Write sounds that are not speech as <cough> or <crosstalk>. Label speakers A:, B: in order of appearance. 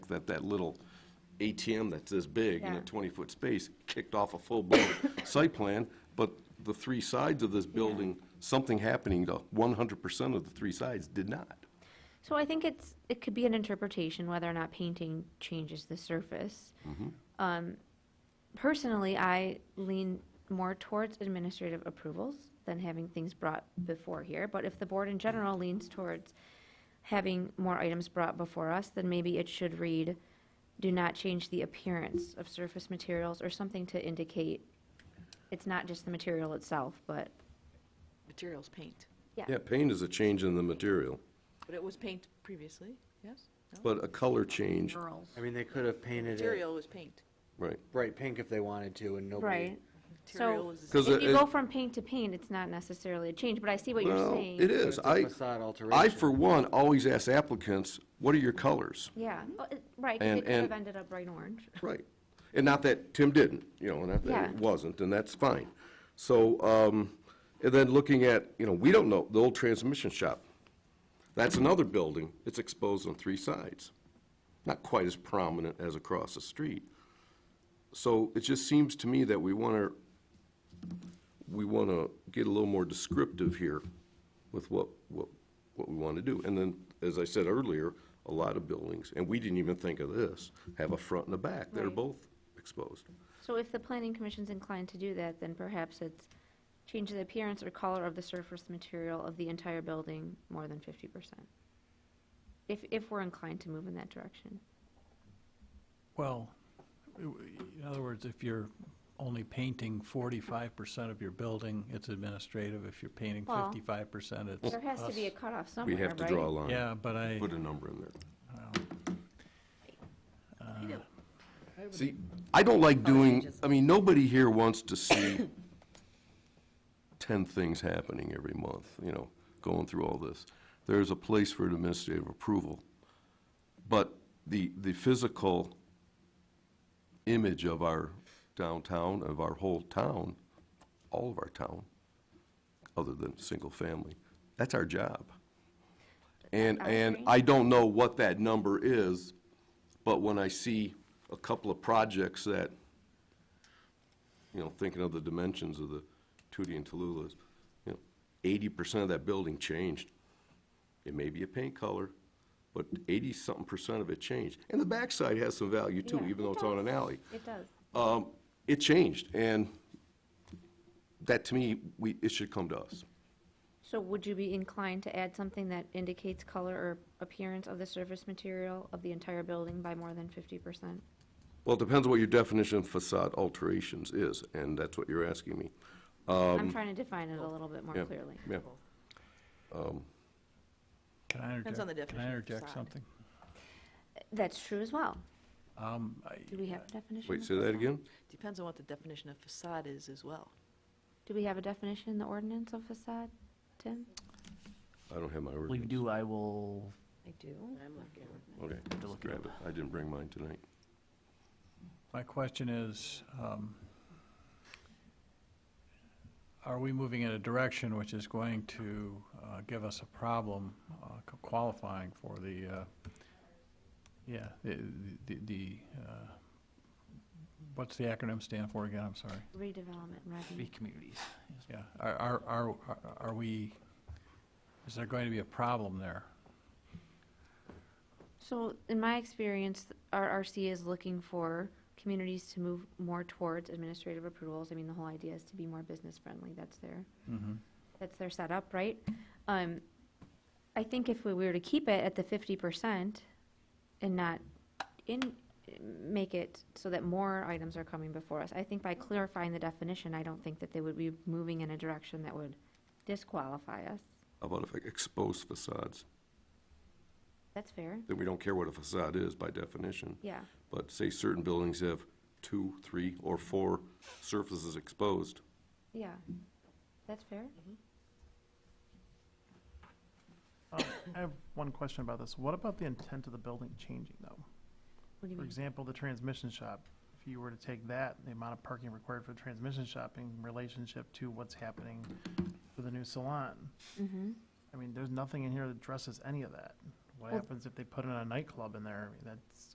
A: that that little ATM that's this big in a
B: Yeah.
A: 20-foot space kicked off a full-blown <coughs> site plan, but the three sides of this building, something happening to 100% of the three sides did not.
B: So I think it's, it could be an interpretation whether or not painting changes the surface. Um, Personally, I lean more towards administrative approvals than having things brought before here. But if the board in general leans towards having more items brought before us, then maybe it should read, do not change the appearance of surface materials or something to indicate it's not just the material itself, but,
C: Materials paint,
A: Yeah, paint is a change in the material,
C: but it was paint previously, yes? No?
A: but a color change,
D: I mean, they could have painted it
C: Material was paint.
A: right.
D: bright pink if they wanted to, and nobody.
B: right?
C: Material was,
A: Because
B: If you
A: it-
B: go from paint to paint, it's not necessarily a change, but I see what you're
A: Well,
B: saying.
A: It
D: But
A: is.
D: it's a
A: I,
D: facade
A: I,
D: alteration.
A: for one, always ask applicants, what are your colors?
B: Yeah, Oh, it- right, 'cause
A: And-
B: it could have
A: and-
B: ended up bright orange.
A: Right. And not that Tim didn't, you know, not that
B: Yeah.
A: it wasn't, and that's fine. So, um, and then looking at, you know, we don't know, the old transmission shop. That's another building. It's exposed on three sides. Not quite as prominent as across the street. So it just seems to me that we want to, we want to get a little more descriptive here with what, what, what we want to do. And then, as I said earlier, a lot of buildings, and we didn't even think of this, have a front and a back that are
B: Right.
A: both exposed.
B: So if the planning commission's inclined to do that, then perhaps it's change the appearance or color of the surface material of the entire building more than fifty percent. If, if we're inclined to move in that direction.
E: Well, i- in other words, if you're only painting forty-five percent of your building, it's administrative. If you're painting
B: Well,
E: fifty-five percent, it's
B: There has to be a
E: us.
B: cutoff
A: We
B: somewhere, Oh right?
A: have to draw a line.
E: Yeah, but I,
A: Put a number in there.
E: uh,
A: See, I don't like doing, I mean, nobody here wants to see <coughs> ten things happening every month, you know, going through all this. There's a place for administrative approval. But the, the physical image of our downtown, of our whole town, all of our town, other than single family, that's our job. And,
B: I
A: and
B: agree.
A: I don't know what that number is, but when I see a couple of projects that, you know, thinking of the dimensions of the Tootie and Tallulah's, you know, eighty percent of that building changed. It may be a paint color, but eighty-something percent of it changed. And the backside has some value too,
B: Yeah,
A: even
B: it
A: though it's on
B: does.
A: an alley.
B: It does.
A: Um, it changed, and that to me, we, it should come to us.
B: So would you be inclined to add something that indicates color or appearance of the surface material of the entire building by more than fifty percent?
A: Well, it depends on what your definition of facade alterations is, and that's what you're asking me. Um,
B: I'm trying to define it a little bit more
A: yeah.
B: clearly.
A: Yeah.
E: can I
C: Depends on the
E: interject, can I
C: definition of
E: interject
C: facade.
E: something?
B: That's true as well.
E: Um, I-
B: Do we have a definition?
A: Wait,
B: of
A: say that
B: facade?
A: again?
C: depends on what the definition of facade is as well.
B: Do we have a definition in the ordinance of facade, Tim?
A: I don't have my
F: I believe
A: ordinance.
F: you do, I will,
C: I do. I'm looking.
A: Okay,
F: to
A: let's
F: look it
A: grab it. I didn't bring mine tonight.
E: My question is, um, are we moving in a direction which is going to uh, give us a problem uh, c- qualifying for the, uh, yeah, the, the- the, uh, what's the acronym stand for again? I'm sorry.
B: Redevelopment
F: free
B: revenue.
F: communities. Yes.
E: Yeah, are, are, are are we, is there going to be a problem there?
B: So in my experience, RRC is looking for communities to move more towards administrative approvals. I mean, the whole idea is to be more business friendly. That's their,
E: Mm-hmm.
B: that's their setup, right? Um, I think if we were to keep it at the fifty percent and not in, make it so that more items are coming before us, I think by clarifying the definition, I don't think that they would be moving in a direction that would disqualify us.
A: How about if I expose facades?
B: That's fair,
A: Then we don't care what a facade is by definition.
B: yeah.
A: But say certain buildings have two, three, or four surfaces exposed.
B: Yeah, that's fair.
G: Um, I have one question about this. What about the intent of the building changing, though?
B: What do you
G: For
B: mean?
G: example, the transmission shop, if you were to take that, the amount of parking required for the transmission shop in relationship to what's happening with the new salon,
B: Mm-hmm.
G: I mean, there's nothing in here that addresses any of that. What
B: Well-
G: happens if they put in a nightclub in there? I mean, that's